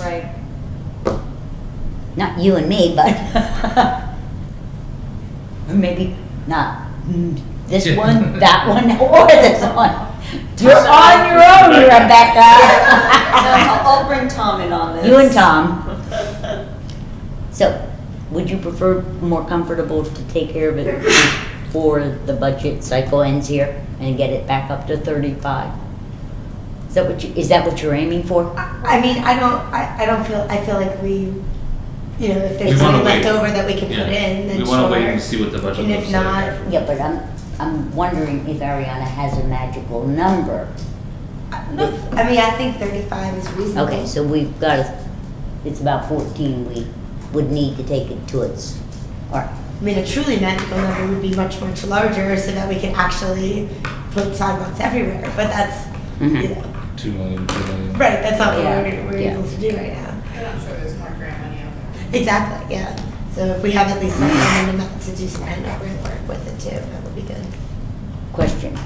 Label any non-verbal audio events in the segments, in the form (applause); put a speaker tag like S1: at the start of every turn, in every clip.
S1: Right.
S2: Not you and me, but or (laughs) maybe not mm, this
S3: Yeah.
S2: one, that one, (laughs) or this one. You're on your own, (laughs)
S1: No,
S2: Rebecca.
S1: I'll I'll bring Tom in on this.
S2: (laughs) You and Tom. So, would you prefer more comfortable to take care of it before the budget cycle ends here and get it back up to thirty-five? Is that what you, is that what you're aiming for?
S4: I I mean, I don't, I, I don't feel, I feel like we, you know, if
S3: We
S4: there's
S3: wanna
S4: money left
S3: wait.
S4: over that we can put in,
S3: Yeah,
S4: then
S3: we wanna wait and
S4: sure.
S3: see what the budget
S4: And if
S3: looks like.
S4: not-
S3: after.
S2: Yeah, but I'm, I'm wondering if Ariana has a magical number.
S4: I- no, I mean, I think thirty-five is reasonable.
S2: Okay, so we've got, a- it's about fourteen we would need to take it to its, all right.
S4: I mean, a truly magical number would be much, much larger so that we can actually put sidewalks everywhere, but that's, you
S2: Mhm.
S4: know,
S3: Two million, two million.
S4: right, that's not what
S2: Yeah,
S4: we're, we're
S2: yeah.
S4: able to do right now.
S5: And I'm sure there's more grant money out there.
S4: Exactly, yeah. So if we have at least some minimum amount to do some kind of work with it too, that would be good.
S2: Question,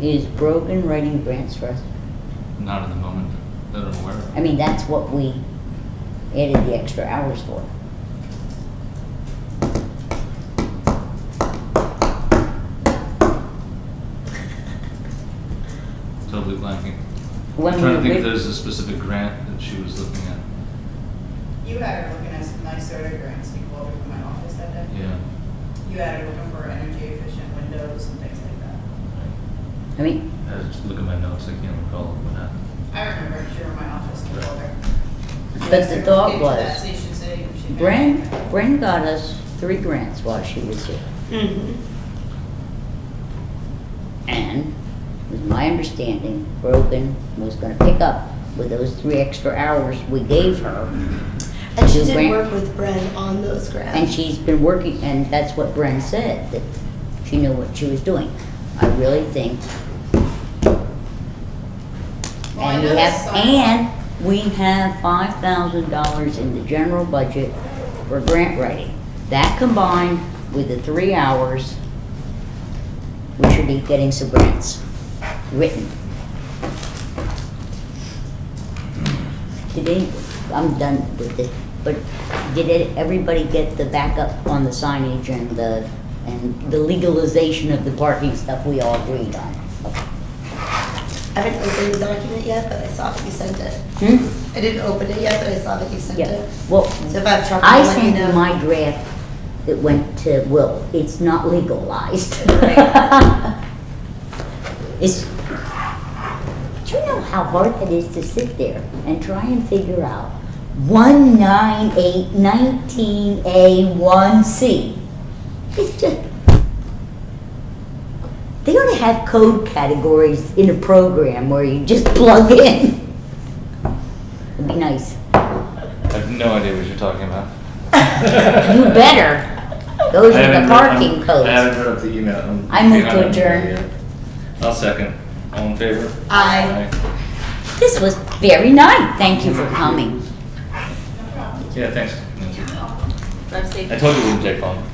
S2: is Brogan writing grants for us?
S3: Not at the moment, that I'm aware of.
S2: I mean, that's what we added the extra hours for.
S3: Totally blanking.
S2: When
S3: I'm trying to
S2: we
S3: think if
S2: ri-
S3: there's a specific grant that she was looking at.
S5: You had her looking at some NYSERDA grants, you called her from my office that day.
S3: Yeah.
S5: You had her looking for energy efficient windows and things like that.
S2: I mean,
S3: I had to look at my notes, I can't recall what happened.
S5: I remember she were in my office and called her.
S2: But the thought
S5: Get to that
S2: was,
S5: station city and she found
S2: Bren,
S5: it.
S2: Bren got us three grants while she was here. Mm-hmm. And it was my understanding, Brogan was gonna pick up with those three extra hours we gave her.
S4: And she
S2: Do
S4: did
S2: grant-
S4: work with Bren on those grants.
S2: And she's been working, and that's what Bren said, that she knew what she was doing. I really think.
S5: Well, I
S2: And we
S5: know
S2: have,
S5: some-
S2: and we have five thousand dollars in the general budget for grant writing. That combined with the three hours, we should be getting some grants written. Did any, I'm done with this, but did it- everybody get the backup on the signage and the, and the legalization of the parking stuff we all agreed on?
S4: I haven't opened the document yet, but I saw that you sent it.
S2: Hmm?
S4: I didn't open it yet, but I saw that you sent
S2: Yeah,
S4: it.
S2: well,
S4: So if I have trouble,
S2: I
S4: let me
S2: sent
S4: know.
S2: you my draft that went to Will, it's not legalized. It's, do you know how hard it is to sit there and try and figure out one nine eight nineteen A one C? It's just, they ought to have code categories in a program where you just plug in. It'd be nice.
S3: I have no idea what you're talking about.
S2: You better. Those are the parking
S3: I
S2: codes.
S3: haven't heard up the email. I'm
S2: I move to
S3: behind on the
S2: adjourn.
S3: email yet. I'll second. All in favor?
S4: I,
S2: This was very nice. Thank you for coming.
S3: Yeah, thanks.
S1: Drive safe.
S3: I told you it wouldn't take long.